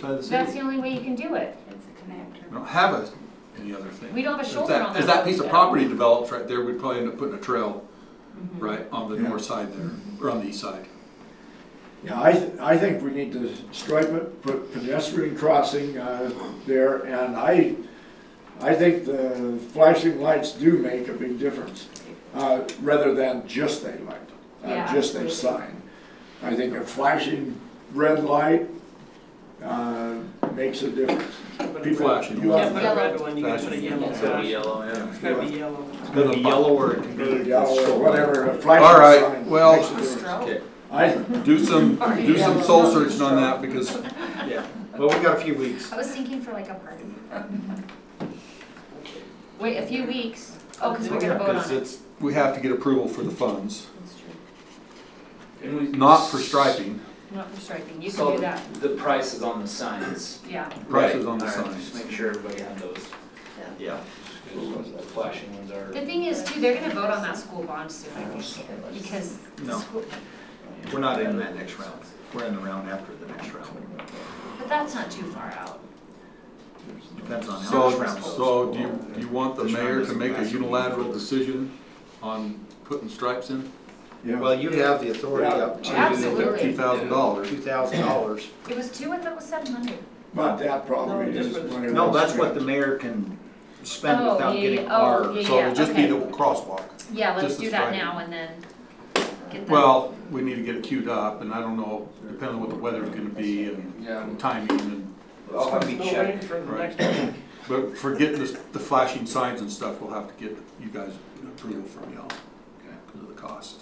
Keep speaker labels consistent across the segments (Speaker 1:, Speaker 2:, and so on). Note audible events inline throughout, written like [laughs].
Speaker 1: side of the
Speaker 2: That's
Speaker 1: city?
Speaker 2: the only way you can do it.
Speaker 3: It's a
Speaker 1: We
Speaker 3: connector.
Speaker 1: don't have a, any other thing.
Speaker 2: We don't have a
Speaker 1: If
Speaker 2: shoulder on that
Speaker 1: If that
Speaker 2: road,
Speaker 1: piece of
Speaker 2: though.
Speaker 1: property develops right there, we'd probably end up putting a trail,
Speaker 2: Mm-hmm.
Speaker 3: Mhm.
Speaker 1: right, on the
Speaker 4: Yeah.
Speaker 1: north side there, or on the east side.
Speaker 4: Yeah, I, th- I think we need to stripe it, put pedestrian crossing uh, there, and I, I think the flashing lights do make a big difference, uh, rather than just a light,
Speaker 2: Yeah,
Speaker 4: uh, just a
Speaker 2: absolutely.
Speaker 4: sign. I think a flashing red light uh, makes a difference. People-
Speaker 1: flashing.
Speaker 4: you
Speaker 5: Yeah,
Speaker 4: have-
Speaker 5: put a red one, you gotta put a yellow
Speaker 6: It's gonna be
Speaker 5: one.
Speaker 6: yellow, yeah.
Speaker 5: It's gotta be yellow.
Speaker 6: It's gonna be yellow or it can
Speaker 4: Or
Speaker 6: be.
Speaker 4: yellow or whatever, a
Speaker 1: All right,
Speaker 4: flashing sign
Speaker 1: well-
Speaker 4: makes a difference.
Speaker 6: Okay,
Speaker 4: I,
Speaker 1: Do some,
Speaker 6: [laughs]
Speaker 1: do some soul searching on that because
Speaker 6: yeah. Well, we got a few weeks.
Speaker 3: I was thinking for like a party.
Speaker 2: [laughs] Wait a few weeks. Oh, because we're gonna vote
Speaker 1: Because
Speaker 2: on it.
Speaker 1: it's, we have to get approval for the funds,
Speaker 3: That's true.
Speaker 6: And we-
Speaker 1: not for striping,
Speaker 2: Not for striping. You
Speaker 6: So
Speaker 2: can do that.
Speaker 6: The prices on the signs.
Speaker 2: Yeah.
Speaker 1: prices on the
Speaker 6: Right, all right, Just
Speaker 1: signs.
Speaker 6: make sure everybody had those. Yeah. The flashing ones are.
Speaker 2: The thing is too, they're gonna vote on that school bond soon, I think, because. the
Speaker 6: No.
Speaker 2: school-
Speaker 6: We're not in that next round. We're in the round after the next round.
Speaker 2: But that's not too far out.
Speaker 6: Depends on how much
Speaker 1: So,
Speaker 6: round goes.
Speaker 1: so do you, do you want the mayor to make a unilateral decision on putting stripes in?
Speaker 4: yeah,
Speaker 7: Well, you have the authority up to
Speaker 2: Absolutely.
Speaker 1: Two thousand dollars.
Speaker 7: two thousand dollars.
Speaker 2: It was two, I thought it was seven hundred.
Speaker 4: but that probably
Speaker 5: No, just
Speaker 4: is
Speaker 5: for the-
Speaker 4: one of
Speaker 7: No,
Speaker 4: those
Speaker 7: that's what the
Speaker 4: trends.
Speaker 7: mayor can spend
Speaker 2: Oh,
Speaker 7: without
Speaker 2: yeah,
Speaker 7: getting
Speaker 2: yeah, oh,
Speaker 7: our.
Speaker 2: yeah.
Speaker 1: So it'll just be the
Speaker 2: okay.
Speaker 1: crosswalk.
Speaker 2: Yeah, let's
Speaker 1: Just the
Speaker 2: do that
Speaker 1: striping.
Speaker 2: now and then get that.
Speaker 1: Well, we need to get it queued up and I don't know, depending on what the weather's gonna be and
Speaker 6: Yeah.
Speaker 1: and timing and,
Speaker 6: I'll have
Speaker 5: No
Speaker 6: you
Speaker 5: waiting
Speaker 6: check.
Speaker 5: for the
Speaker 1: Right.
Speaker 5: next one.
Speaker 1: but for getting this, the flashing signs and stuff, we'll have to get you guys approval from y'all. Because of the cost.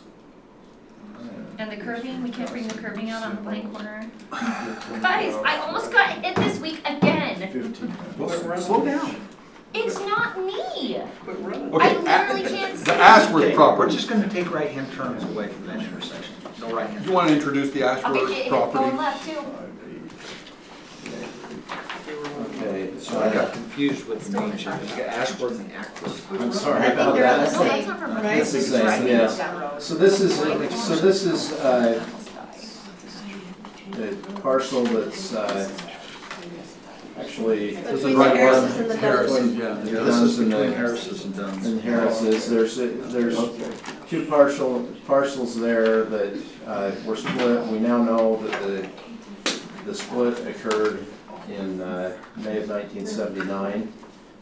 Speaker 2: And the curving, we can't bring the curving out on the blank corner. Guys, I almost got hit this week again.
Speaker 4: Fifteen.
Speaker 5: Well,
Speaker 1: Slow down.
Speaker 2: It's not me.
Speaker 5: Quit running.
Speaker 1: Okay,
Speaker 2: I literally
Speaker 1: a-
Speaker 2: can't see.
Speaker 1: The Ashworth
Speaker 7: Okay, We're
Speaker 1: property,
Speaker 7: just gonna take right-hand turns away from that intersection, no right-hand.
Speaker 1: you wanna introduce the
Speaker 2: Okay, get
Speaker 1: Ashworth
Speaker 2: hit going
Speaker 1: property?
Speaker 2: left too.
Speaker 7: Okay, so I got confused with the name change, You got Ashford and Ackworth.
Speaker 5: I'm
Speaker 8: sorry
Speaker 2: No,
Speaker 8: about
Speaker 2: that's
Speaker 8: that.
Speaker 2: not from
Speaker 5: Right?
Speaker 2: It's
Speaker 8: It's
Speaker 2: right
Speaker 8: the same, yes.
Speaker 2: down the road.
Speaker 8: So this is, so this is uh, the parcel that's uh, actually
Speaker 1: This is
Speaker 8: Between
Speaker 1: right
Speaker 8: the Harrises
Speaker 1: one,
Speaker 8: and the
Speaker 1: Harrison,
Speaker 8: Dunnses.
Speaker 1: yeah.
Speaker 8: Yeah,
Speaker 7: This is
Speaker 8: and
Speaker 7: between
Speaker 8: the-
Speaker 7: Harris's and Dunn's.
Speaker 8: in Harris's. There's, there's two partial, parcels there that uh, were split. We now know that the, the split occurred in uh, May of 1979.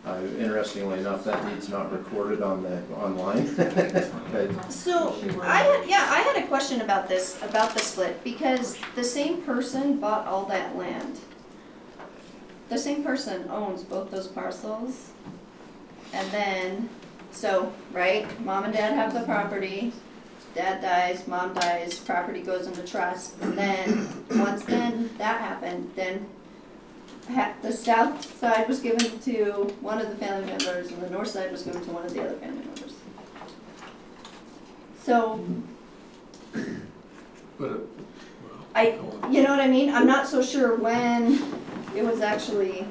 Speaker 8: Uh, Interestingly enough, that deed's not recorded on the, online. [laughs] But
Speaker 9: So I had, yeah, I had a question about this, about the split, because the same person bought all that land. The same person owns both those parcels. And then, so, right, mom and dad have the property, dad dies, mom dies, property goes into trust. And then, once then that happened, then ha- the south side was given to one of the family members and the north side was given to one of the other family members. So,
Speaker 1: But it-
Speaker 9: I, you know what I mean? I'm not so sure when it was actually,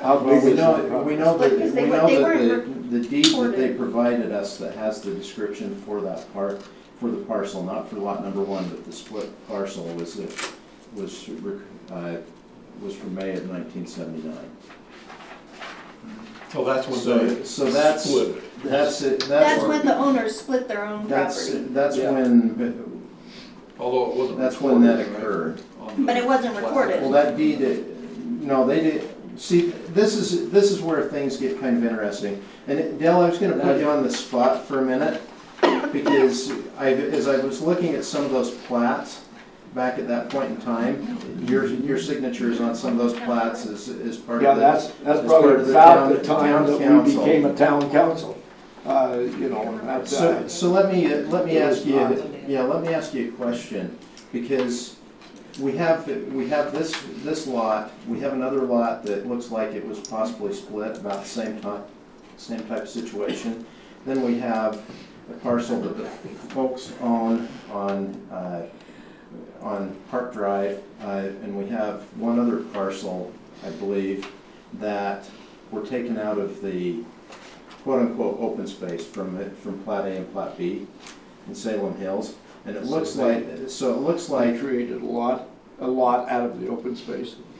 Speaker 4: How
Speaker 8: Well,
Speaker 4: big
Speaker 8: we
Speaker 4: is the
Speaker 8: know,
Speaker 4: property?
Speaker 8: we know that,
Speaker 9: Because they
Speaker 8: we
Speaker 9: were-
Speaker 8: know
Speaker 9: they
Speaker 8: that
Speaker 9: weren't
Speaker 8: the, the deed that they
Speaker 9: recorded.
Speaker 8: provided us that has the description for that part, for the parcel, not for lot number one, but the split parcel was, the- was, rec- uh, was from May of nineteen seventy-nine.
Speaker 1: So that's when
Speaker 8: So,
Speaker 1: they
Speaker 8: so that's,
Speaker 1: Oh, split it.
Speaker 8: that's it,
Speaker 9: that's
Speaker 8: that's,
Speaker 9: when the owners split their own
Speaker 8: that's,
Speaker 9: property.
Speaker 8: that's
Speaker 1: Yeah.
Speaker 8: when,
Speaker 1: Although it wasn't.
Speaker 8: that's when that
Speaker 1: recorded, right?
Speaker 8: occurred.
Speaker 1: On the-
Speaker 9: But it wasn't recorded.
Speaker 8: Well, that deed, uh, no, they did, see, this is, this is where things get kind of interesting. And Dale, I was gonna put you on the spot for a minute, because I, as I was looking at some of those plats back at that point in time, your, your signatures on some of those plats is, is part
Speaker 4: Yeah,
Speaker 8: of the
Speaker 4: that's, that's
Speaker 8: It's
Speaker 4: probably
Speaker 8: part of the
Speaker 4: about the
Speaker 8: town-
Speaker 4: time
Speaker 8: town
Speaker 4: that we
Speaker 8: council.
Speaker 4: became a town council. Uh, you know, that's, uh,
Speaker 8: So, so let me, let me
Speaker 4: It
Speaker 8: ask
Speaker 4: was
Speaker 8: you,
Speaker 4: not.
Speaker 8: yeah, let me ask you a question, because we have, we have this, this lot, we have another lot that looks like it was possibly split about the same time, same type of situation. Then we have a parcel that the folks own on, uh, on Park Drive, uh, and we have one other parcel, I believe, that were taken out of the quote-unquote open space from, it- from Plat A and Plat B in Salem Hills. And it looks like, so it looks
Speaker 4: they
Speaker 8: like
Speaker 4: created a lot, a lot out of the open space.